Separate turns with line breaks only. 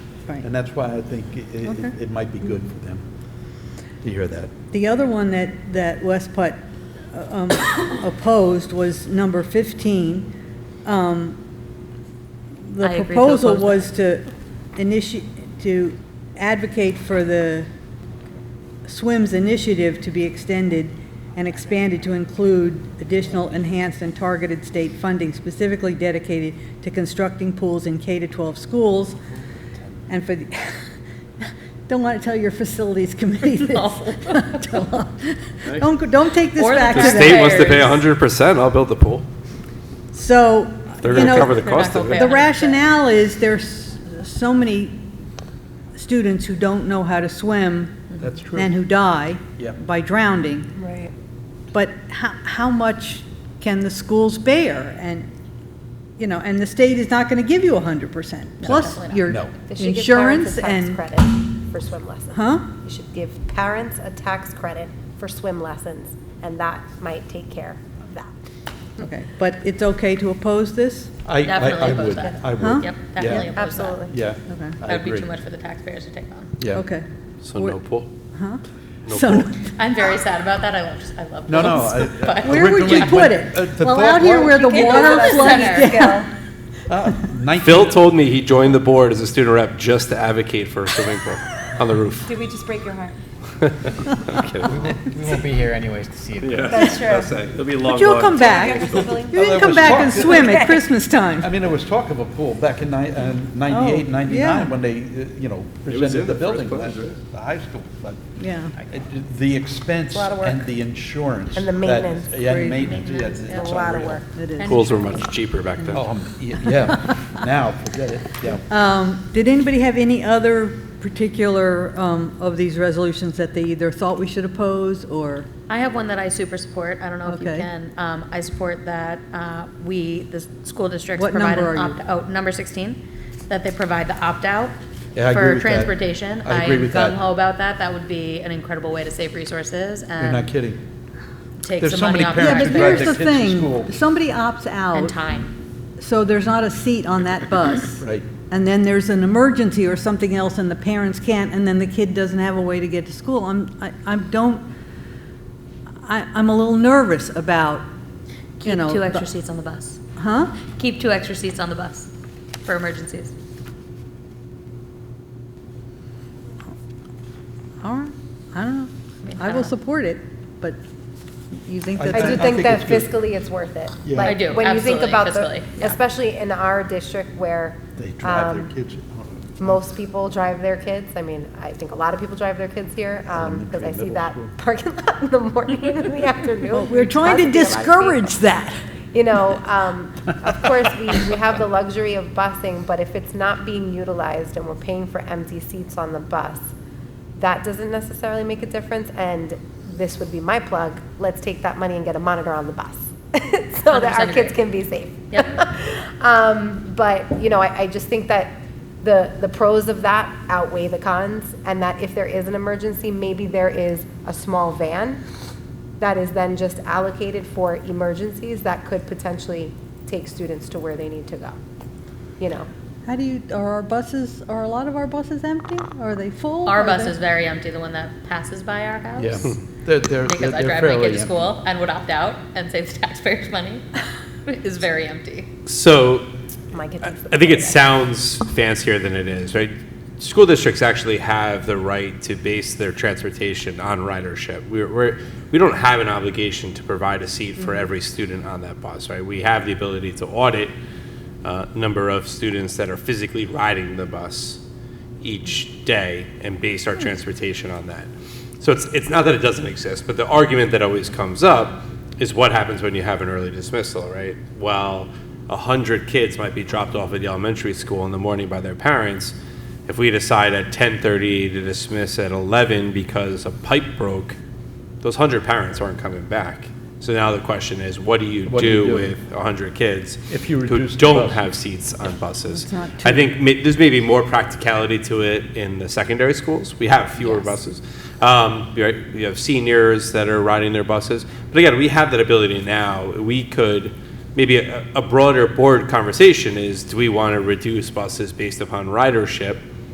Right.
And that's why I think i- i-
Okay.
it might be good for them to hear that.
The other one that, that West Putt um, opposed was number 15. Um, The
I agree to
proposal
oppose
was to initiate, to advocate for the SWIMS initiative to be extended and expanded to include additional enhanced and targeted state funding specifically dedicated to constructing pools in K-12 schools and for the, don't want to tell your facilities committee this. Don't, go- don't take this
Or the
back to
The
Taxpayers.
state
them.
wants to pay hundred percent, I'll build the pool.
So,
They're
you
Oh,
gonna cover the
know,
cost of
They're
the
it.
not gonna pay 100%.
rationale is there's so many students who don't know how to swim
That's true.
and who die
Yep.
by drowning.
Right.
But how, how much can the schools bear? And, you know, and the state is not going to give you 100%. Plus
Definitely not.
your
No.
They should give
insurance
parents a tax
and.
credit for swim lessons.
Huh?
You should give parents a tax credit for swim lessons, and that might take care of that.
Okay, but it's okay to oppose this?
I, I- I
Definitely oppose
would,
that.
I
Huh?
would.
Yep,
Yeah.
definitely oppose that.
Absolutely.
Yeah.
Okay.
I
That would be
agree.
too much for the taxpayers to take on.
Yeah.
Okay.
So no pool.
Huh?
No
So,
pool.
I'm very sad about that. I love, I love
No, no.
those,
I- I-
but-
where would you
Originally,
put
when-
it?
uh, the
Well,
thought
out here
was-
where the
Can't go
water
to the center.
floods down.
Ah, 19
Phil told me he joined the board as a student rep just to advocate for a swimming pool on the roof.
Did we just break your heart?
I'm kidding.
We won't be here anyways to see it.
That's true.
It'll be a long
But you'll come back.
Civilian-
You
there
didn't come
was
back
talk,
and
didn't
swim at Christmas time.
I mean, there was talk of a pool back in ni- uh, 98,
Oh, yeah.
99, when they, uh, you know, presented the building, plan to the high school, but
Yeah.
it- the expense
a lot of work.
and the insurance.
And the
that-
maintenance.
Yeah,
Crazy.
and maintenance, yeah, it's
It's
it's
a lot of
unreal.
work.
It is.
Pools were much cheaper back then.
Oh, um, y- yeah, now, forget it, yeah.
Um, Did anybody have any other particular um, of these resolutions that they either thought we should oppose or?
I have one that I super support. I don't know if you
Okay.
can. Um, I support that, uh, we, the s- school districts
What
provide
number
an
are you?
opt, out number sixteen, that they provide the opt-out
Yeah, I agree
for
with that.
transportation.
I agree with that.
am gung ho about that. That would be an incredible way to save resources
You're not
and
kidding.
take
There's
some
so
money
many
off.
parents
Yeah,
Parents
but
who drive
here's
taxpayers
their
the
kids to school.
thing. If Somebody opts
And
out,
time.
so there's not a seat on that bus.
Right.
And then there's an emergency or something else and the parents can't, and then the kid doesn't have a way to get to school. I'm, I, I don't, I, I'm a little nervous about, you
Keep
know.
two
the-
extra seats on the bus.
Huh?
Keep two extra seats on the bus for emergencies.
All right, I don't know.
mean, I
I will
don't know.
support it, but you think
I
that
I
I
do
that,
think
think
that
it's good.
fiscally it's worth it.
Yeah.
Like,
I do,
When you think
absolutely,
about the,
fiscally, yeah.
especially in our district where
They drive
um,
their kids.
most people drive their kids. I mean, I think a lot of people drive their kids here because I see
middle
that
school.
parking lot in the morning and in the afternoon.
we're trying to
Must be a lot of people.
discourage that.
You know, um, of course, we, we have the luxury of busing, but if it's not being utilized and we're paying for empty seats on the bus, that doesn't necessarily make a difference, and this would be my plug, let's take that money and get a monitor on the bus, so that
100%
our kids
agree.
can be safe.
Yep.
Um, but, you know, I, I just think that the, the pros of that outweigh the cons, and that if there is an emergency, maybe there is a small van that is then just allocated for emergencies that could potentially take students to where they need to go, you know?
How do you, are our buses, are a lot of our buses empty? Are they full?
Our
Are
bus
they-
is very empty, the one that passes by our house.
Yeah, they're, they're, they're
Because I
they're
drive my
fairly
kid to
empty.
school and would opt out and save the taxpayers money is very empty.
So
My kid
I
takes the
I think it
bus.
sounds fancier than it is, right? School districts actually have the right to base their transportation on ridership. We're, we're, we don't have an obligation to provide a seat for every student on that bus, right? We have the ability to audit uh, number of students that are physically riding the bus each day and base our transportation on that. So it's, it's not that it doesn't exist, but the argument that always comes up is what happens when you have an early dismissal, right? Well, a hundred kids might be dropped off at the elementary school in the morning by their parents. If we decide at ten thirty to dismiss at eleven because a pipe broke, those hundred parents aren't coming back. So now the question is, what do you
What do you
do
do?
with a hundred kids?
If you
who
reduce the
Don't
bus.
have have seats on buses.
It's not too-
I think ma- there's maybe more practicality to it in the secondary schools. We have fewer buses. Um, you right, you have seniors that are riding their buses. But again, we have that ability now. We could, maybe a, a broader board conversation is, do we want to reduce buses based upon ridership?